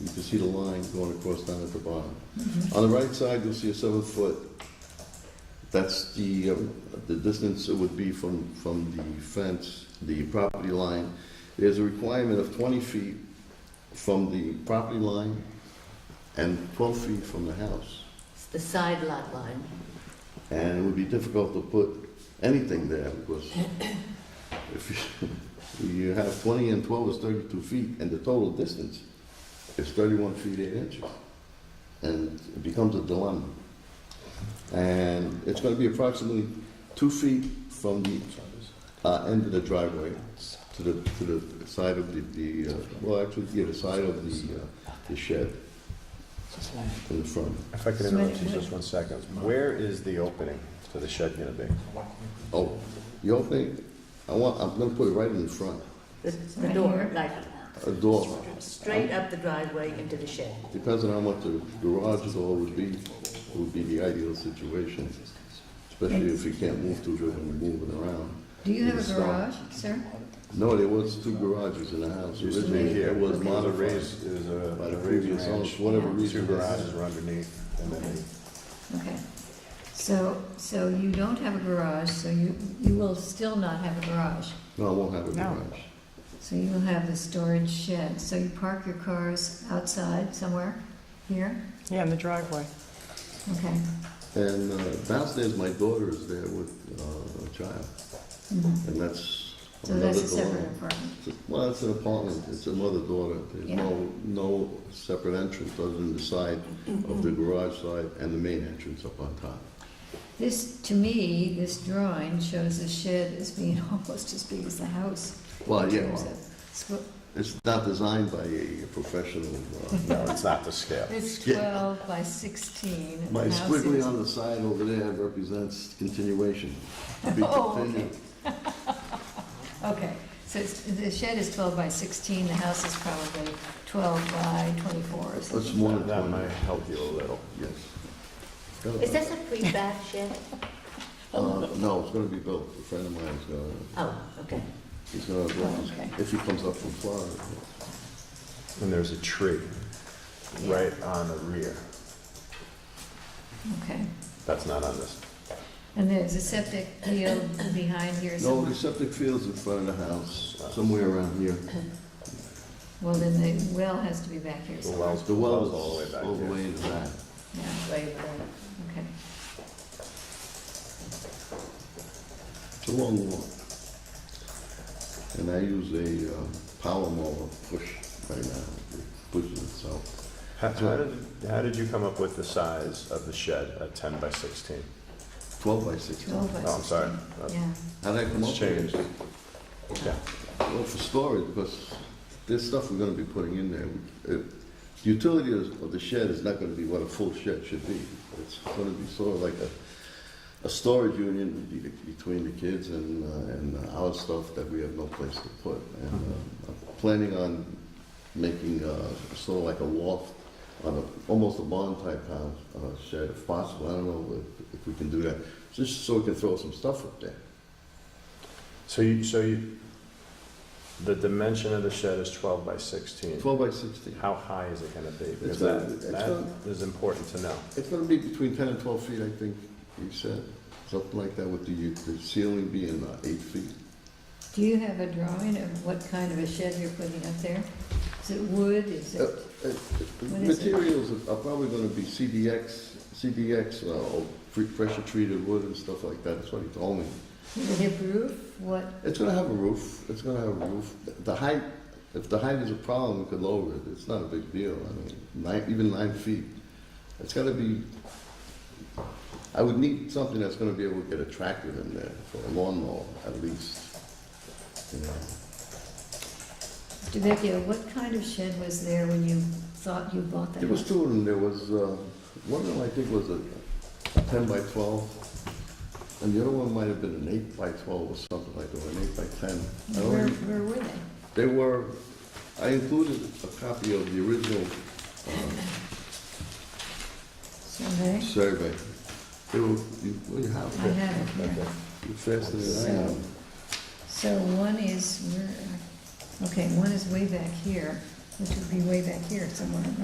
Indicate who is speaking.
Speaker 1: can see the line going across down at the bottom. On the right side, you'll see a seven-foot, that's the, uh, the distance it would be from, from the fence, the property line. There's a requirement of 20 feet from the property line and 12 feet from the house.
Speaker 2: It's the side lot line.
Speaker 1: And it would be difficult to put anything there because if you, you have 20 and 12 is 32 feet and the total distance is 31 feet 8 inches. And it becomes a dilemma. And it's going to be approximately two feet from the uh, end of the driveway to the, to the side of the, the, uh, well, actually, yeah, the side of the, uh, the shed in the front.
Speaker 3: If I could interrupt you just one second, where is the opening to the shed gonna be?
Speaker 1: Oh, you don't think, I want, I'm gonna put it right in the front,
Speaker 2: The, the door, like
Speaker 1: a door.
Speaker 2: straight up the driveway into the shed.
Speaker 1: Depends on how much the garage door would be, would be the ideal situation, especially if you can't move too good and move it around.
Speaker 4: Do you have
Speaker 1: It's not-
Speaker 4: a garage, sir?
Speaker 1: No, there was two garages in the house
Speaker 3: Used to
Speaker 1: originally,
Speaker 3: be here,
Speaker 1: it was
Speaker 3: there was a
Speaker 1: modified
Speaker 3: raised, there was a
Speaker 1: by the
Speaker 3: a
Speaker 1: previous
Speaker 3: raised
Speaker 1: owners,
Speaker 3: ranch.
Speaker 1: for whatever
Speaker 3: Two
Speaker 1: reason.
Speaker 3: garages were underneath, and then they-
Speaker 4: Okay. So, so you don't have a garage, so you, you will still not have a garage.
Speaker 1: No, I won't have a
Speaker 5: No.
Speaker 1: garage.
Speaker 4: So you will have the storage shed. So you park your cars outside somewhere, here?
Speaker 5: Yeah, in the driveway.
Speaker 4: Okay.
Speaker 1: And uh, downstairs, my daughter is there with uh, a child,
Speaker 4: Mhm.
Speaker 1: and that's
Speaker 4: So
Speaker 1: another
Speaker 4: that's a separate
Speaker 1: dilemma.
Speaker 4: apartment.
Speaker 1: Well, it's an apartment, it's a mother-daughter, there's
Speaker 4: Yeah.
Speaker 1: no, no separate entrance other than the side of the garage side and the main entrance up on top.
Speaker 4: This, to me, this drawing shows the shed as being almost as big as the house. in
Speaker 1: Well, yeah,
Speaker 4: terms
Speaker 1: well,
Speaker 4: of squ-
Speaker 1: it's not designed by a professional. uh,
Speaker 3: no, it's not the scale.
Speaker 4: It's
Speaker 1: Yeah.
Speaker 4: 12 by 16. and
Speaker 1: My
Speaker 4: the house
Speaker 1: squiggly
Speaker 4: is-
Speaker 1: on the side over there represents continuation. To be
Speaker 4: Oh, okay.
Speaker 1: continued.
Speaker 4: Okay, so it's- the shed is 12 by 16, the house is probably 12 by 24 or
Speaker 1: That's
Speaker 4: something.
Speaker 1: more than
Speaker 3: That might
Speaker 1: twenty,
Speaker 3: help you a little.
Speaker 1: yes.
Speaker 2: Is this a prefab shed?
Speaker 1: Uh,
Speaker 4: Oh.
Speaker 1: No, it's gonna be built, a friend of mine's gonna,
Speaker 2: Oh, okay.
Speaker 1: he's gonna build
Speaker 4: Oh, okay.
Speaker 1: this, if he comes up from Florida.
Speaker 3: And there's a tree
Speaker 4: Yeah.
Speaker 3: right on the rear.
Speaker 4: Okay,
Speaker 3: That's not on this.
Speaker 4: and there's a septic field behind here
Speaker 1: No, the
Speaker 4: somewhere.
Speaker 1: septic field's in front of the house, somewhere around here.
Speaker 4: Well, then the well has to be back here
Speaker 3: The
Speaker 4: somewhere.
Speaker 3: well's,
Speaker 1: The
Speaker 3: the
Speaker 1: well's
Speaker 3: well's all the way back
Speaker 1: All the
Speaker 3: here.
Speaker 1: way in the back.
Speaker 4: Yeah, way back, okay.
Speaker 1: It's a long walk. And I use a uh, power mower push right now, it pushes itself.
Speaker 3: How how did, how did you come up with the size of the shed at ten by sixteen?
Speaker 1: 12 by 16.
Speaker 4: 12 by 16.
Speaker 3: Oh, I'm sorry. Uh,
Speaker 4: Yeah,
Speaker 1: How'd I come up
Speaker 3: It's
Speaker 1: with
Speaker 3: changed.
Speaker 1: it?
Speaker 3: Yeah.
Speaker 1: Well, for storage, because there's stuff we're gonna be putting in there. Uh, The Utility of of the shed is not gonna be what a full shed should be. It's gonna be sort of like a, a storage union be- between the kids and, uh, and our stuff that we have no place to put. And uh, I'm planning on making, uh, sort of like a loft on a, almost a barn type house, uh, shed if possible. I don't know if- if we can do that, just so we can throw some stuff up there.
Speaker 3: So you, so you, the dimension of the shed is twelve by sixteen.
Speaker 1: 12 by 16.
Speaker 3: How high is it gonna be? Because
Speaker 1: gonna-
Speaker 3: that,
Speaker 1: it's gonna-
Speaker 3: that is important to know.
Speaker 1: It's gonna be between ten and twelve feet, I think you said, something like that, with the, the ceiling being uh, eight feet.
Speaker 4: do you have a drawing of what kind of a shed you're putting up there? Is it wood, is
Speaker 1: Uh,
Speaker 4: it,
Speaker 1: uh,
Speaker 4: What is it?
Speaker 1: Materials are- are probably gonna be CDX, CDX, uh, or pre- pressure treated wood and stuff like that, that's what he told me.
Speaker 4: is it a roof, what?
Speaker 1: It's gonna have a roof, it's gonna have a roof, the height, if the height is a problem, we could lower it, it's not a big deal, I mean, nine, even nine feet. It's gotta be, I would need something that's gonna be able to get a tractor in there, for a lawnmower, at least. You know.
Speaker 4: DeVecchio, what kind of shed was there when you thought you bought that?
Speaker 1: There was
Speaker 4: house?
Speaker 1: two of them, there was, uh, one of them I think was a a ten by twelve, and the other one might have been an eight by twelve or something like that, or an eight by ten. I don't
Speaker 4: Where,
Speaker 1: remember.
Speaker 4: where were they?
Speaker 1: They were, I included a copy of the original uh,
Speaker 4: Survey?
Speaker 1: survey. They were, you, well, you
Speaker 4: I
Speaker 1: have that,
Speaker 4: have it here.
Speaker 1: you're faster than I am.
Speaker 4: So one is, where, okay, one is way back here, which would be way back here somewhere,